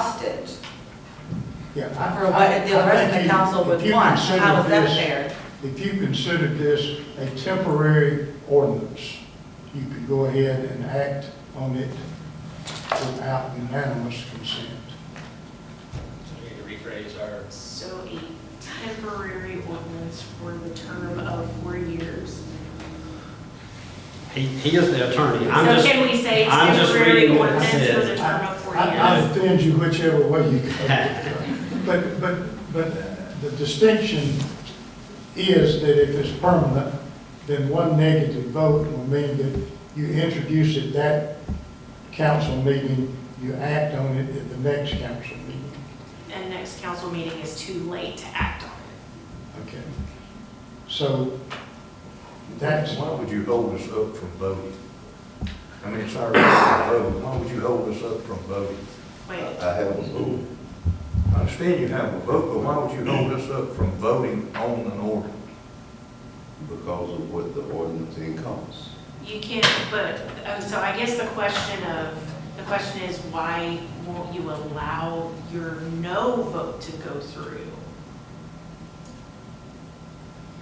hostage Yeah. I- for I- what the I rest of think the you- council if would you want. consider How is that this- fair? If you considered this a temporary ordinance, you could go ahead and act on it without unanimous consent. So we need to rephrase our, So a temporary ordinance for the term of four years. He, he is the attorney. So I'm just, can we say I'm just temporary reading what it ordinance for the says. term of four I- I- I'll years? defend you whichever way you go. But, but, but the distinction is that if it's permanent, then one negative vote will mean that you introduce it that council meeting, you act on it at the next council meeting. And next council meeting is too late to act on it. Okay. So that's, Why would you hold us up from voting? I mean, it's our right to vote, why would you hold us up from voting? Wait, I have a vote. I understand you have a vote, but why would you hold us up from voting on an order? because of what the ordinance encompasses. you can't, but, oh, so I guess the question of, the question is why won't you allow your no vote to go through?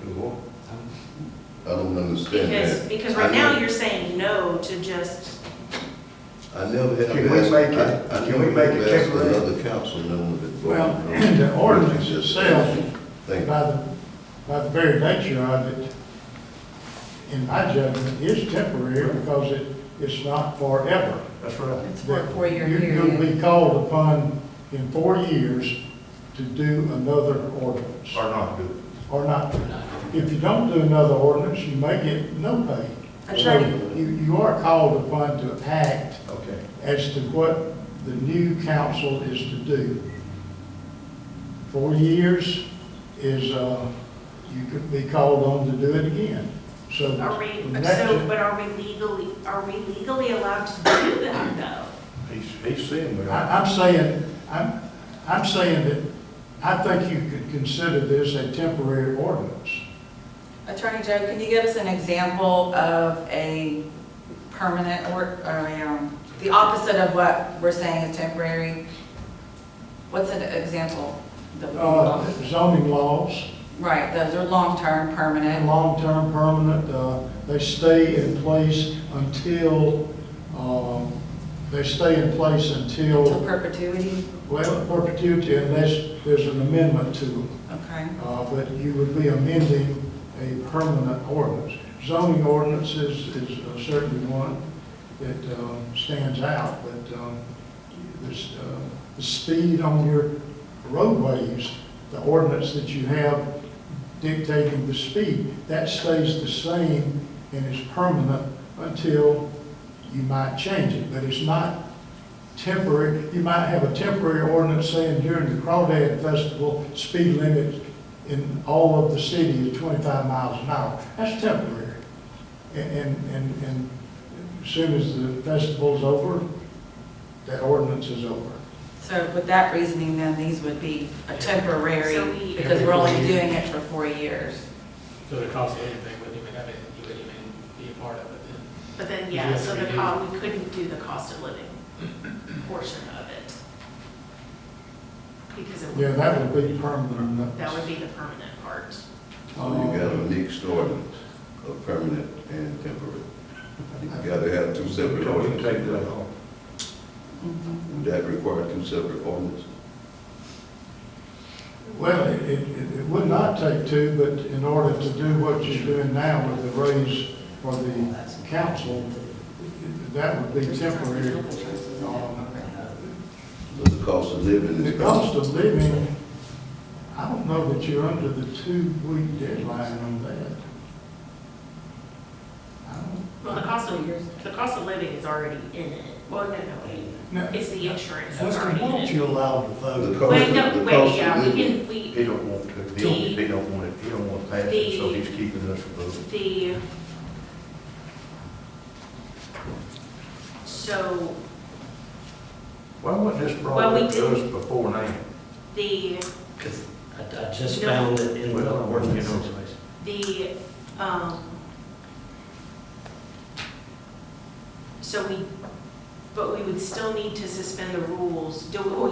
Do what? I don't understand Because, that. because uh, I right now never- you're saying no to just, I never had. Can we asked- make it- I- I can never we make it asked temporary? Another council member that voted. well, no. the ordinance itself, by Thank you. the, by the very nature of it, in my judgment, is temporary because it, it's not forever. That's right. It's for a four-year You- You'll period. be called upon in four years to do another ordinance, Or not do it. or not. If you don't do another ordinance, you may get no pay. So Attorney, You, you are called upon to act Okay. as to what the new council is to do. Four years is, uh, you could be called on to do it again. So are we, that's so, but are we legally, are we legally allowed to do that though? He's, he's saying we are. I- I'm saying, I'm, I'm saying that I think you could consider this a temporary ordinance. Attorney Joe, can you give us an example of a permanent or, or, um, the opposite of what we're saying is temporary? What's an example? that we- Uh, Zoning laws, Right, those are long-term, permanent. long-term, permanent, uh, they stay in place until, um, they stay in place To until perpetuity, Well, perpetuity unless there's an amendment to them, okay. uh, but you would be amending a permanent ordinance. Zoning ordinances is uh, certainly one that um, stands out, but um, this, uh, the speed on your roadways, the ordinance that you have dictating the speed, that stays the same and is permanent until you might change it, but it's not temporary, you might have a temporary ordinance saying during the Crawdad Festival, speed limit in all of the city is twenty-five miles an hour. That's temporary. And, and, and, and as soon as the festival's over, that ordinance is over. So with that reasoning, then these would be a temporary, So we- because we're only doing it for four years. so the cost of anything wouldn't even have it, you wouldn't even be a part of it then. But then, Yeah, yeah, so the we do. co we couldn't do the cost of living portion of it. Because it Yeah, would, that would be permanent. that would be the permanent part. So Oh, Uh, you got a mixed ordinance of permanent and temporary. You gotta have two We separate don't even take ordinances. that off. Mm-hmm. Would that require two separate ordinances? Well, it, it, it would not take two, but in order to do what you're doing now with the raise for the council, that would be temporary. um, So the cost of living The is. cost of living, I don't know that you're under the two-week deadline on that. I don't- Well, the cost of, the cost of living is already in it. Well, no, no, wait, Now, it's the insurance that's Lester, already why don't in it. you allow the The vote? cost Wait, of- no, the wait, cost yeah, of we living. can, we, He don't want to, he don't, he don't want it, he don't want to pass it, so he's keeping us from voting. the, so Why wasn't this brought Well, we up to didn't- us before now? the, Because I, I just No. found it in the Well, you ordinance know. situation. the, um, so we, but we would still need to suspend the rules. Do, we?